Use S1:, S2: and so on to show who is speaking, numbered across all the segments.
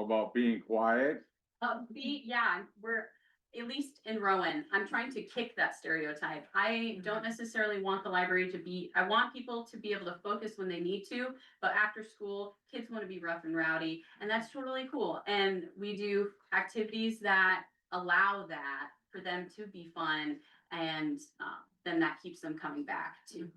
S1: about being quiet.
S2: Uh, be, yeah, we're, at least in Rowan, I'm trying to kick that stereotype. I don't necessarily want the library to be, I want people to be able to focus when they need to. But after school, kids want to be rough and rowdy, and that's totally cool. And we do activities that allow that for them to be fun. And, uh, then that keeps them coming back too.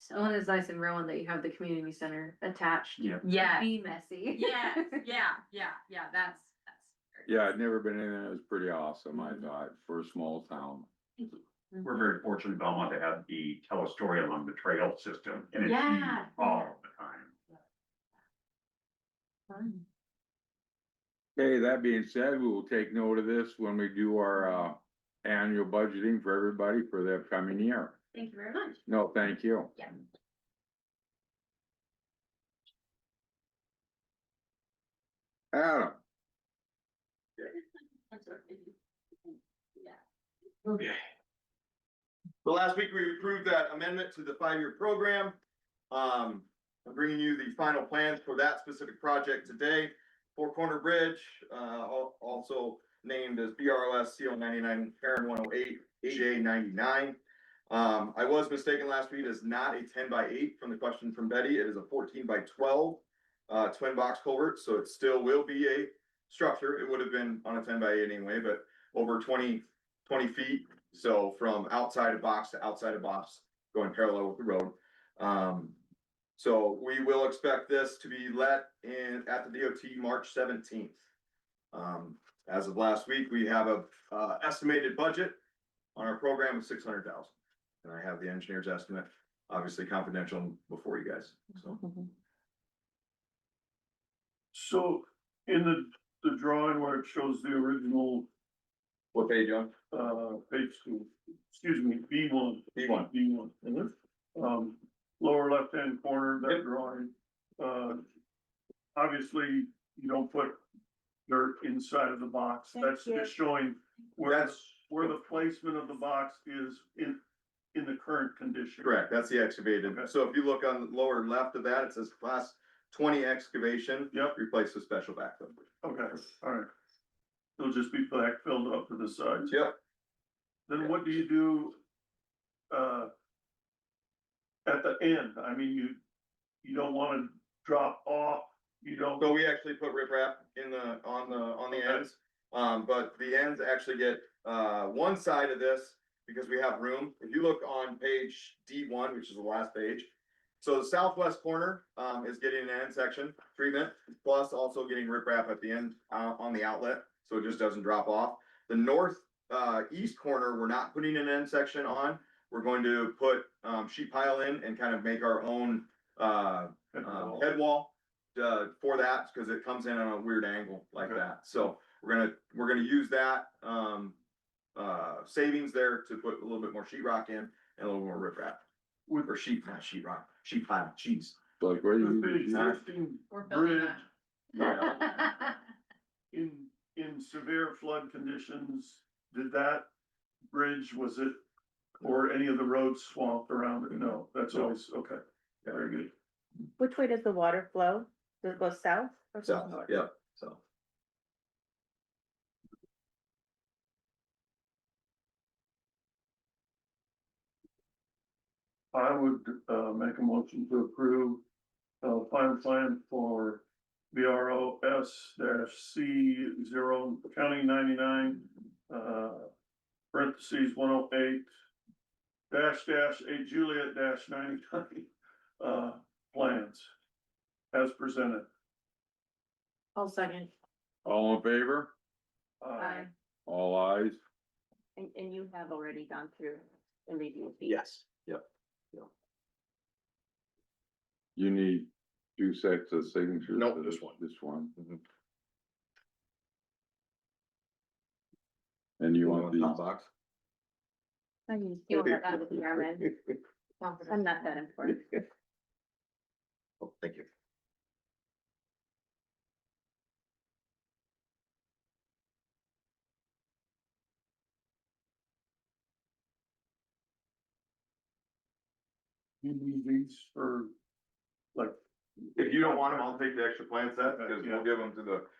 S2: So,
S3: One is nice in Rowan that you have the community center attached.
S4: Yeah.
S2: yeah,
S3: Mm-hmm. Be messy.
S2: yeah, yeah, yeah, yeah, that's, that's.
S1: Yeah, I'd never been in there. It was pretty awesome, I
S2: Mm-hmm.
S3: Mhm.
S1: thought, for a small town.
S2: Thank you.
S4: We're very fortunate in Belmont to have the tell a story along the trail system and it's Oh.
S2: Yeah.
S4: used all the time.
S3: Fun.
S1: Okay, that being said, we will take note of this when we do our uh annual budgeting for everybody for the upcoming year.
S2: Thank you very much.
S1: No, thank you.
S2: Yeah.
S1: Adam,
S2: Yeah.
S5: Okay. So last week we approved that amendment to the five-year program. Um, I'm bringing you the final plans for that specific project today. Four Corner Bridge, uh, al- also named as BRLS CO ninety-nine, Karen one oh eight, AJ ninety-nine. Um, I was mistaken last week, it's not a ten by eight from the question from Betty, it is a fourteen by twelve, uh, twin box culvert, so it still will be a structure. It would have been on a ten by eight anyway, but over twenty twenty feet. So from outside of box to outside of box, going parallel with the road. Um, so we will expect this to be let in at the DOT March seventeenth. Um, as of last week, we have a, uh, estimated budget on our program of six hundred thousand. And I have the engineer's estimate, obviously confidential before you guys, so.
S6: So in the, the drawing where it shows the original,
S5: What page, John?
S6: uh, page two, excuse me, B one.
S5: B one.
S6: B one. Um, lower left-hand corner, of
S5: Mm-hmm. Yep.
S6: that drawing, uh, obviously you don't put dirt inside of the box.
S3: Thank
S6: That's
S3: you.
S6: just showing where, the-
S5: That's
S6: where the placement of the box is in, in the current condition.
S5: correct, that's the excavated.
S6: Okay.
S5: So if you look on the lower left of that, it says class twenty excavation.
S6: Yep.
S5: Replace the special backfill.
S6: Okay, all right. It'll just be backfilled up to the sides.
S5: Yep,
S6: Then what do you do? Uh. At the end, I mean, you, you don't wanna drop off, you don't,
S5: So we actually put riprap in the, on the, on the
S6: Okay.
S5: ends, um, but the ends actually get, uh, one side of this because we have room. If you look on page D one, which is the last page. So the southwest corner, um, is getting an end section treatment, plus also getting riprap at the end, uh, on the outlet, so it just doesn't drop off. The north, uh, east corner, we're not putting an end section on. We're going to put, um, sheet pile in and kind of make our own, uh, um, head wall, uh, for that, because it comes in on a weird angle like
S6: Okay.
S5: that, so we're gonna, we're gonna use that, um. Uh, savings there to put a little bit more sheet rock in and a little more riprap,
S6: with
S5: or sheet, not sheet rock, sheet pile, jeez.
S1: like, where
S6: with the
S1: you?
S6: existing
S2: We're building
S6: bridge
S2: up.
S6: in, in severe flood conditions, did that bridge, was it? Or any of the roads swamped around it? No, that's
S5: No.
S6: always, okay, very good.
S7: Which way does the water flow? Does it go south? or
S5: So,
S7: north?
S5: yeah, so.
S6: I would uh make a motion to approve uh final plan for VROS dash C zero county ninety-nine uh parentheses one oh eight dash dash eight Juliet dash ninety-nine uh plans as presented.
S3: I'll second.
S1: All in favor?
S6: Uh,
S1: All eyes.
S7: And, and you have already gone through and reviewed these?
S5: Yes. Yep,
S1: You need two sets of signatures.
S5: Nope,
S1: for
S5: just one.
S1: This one.
S5: Mhm.
S1: And you want these?
S5: Hot box?
S7: I mean, you have that with your men. I'm not that important.
S5: Oh, Thank you.
S6: you need these for like
S5: If you don't want them, I'll take the extra plan set, because
S6: Yeah.
S5: we'll give them to the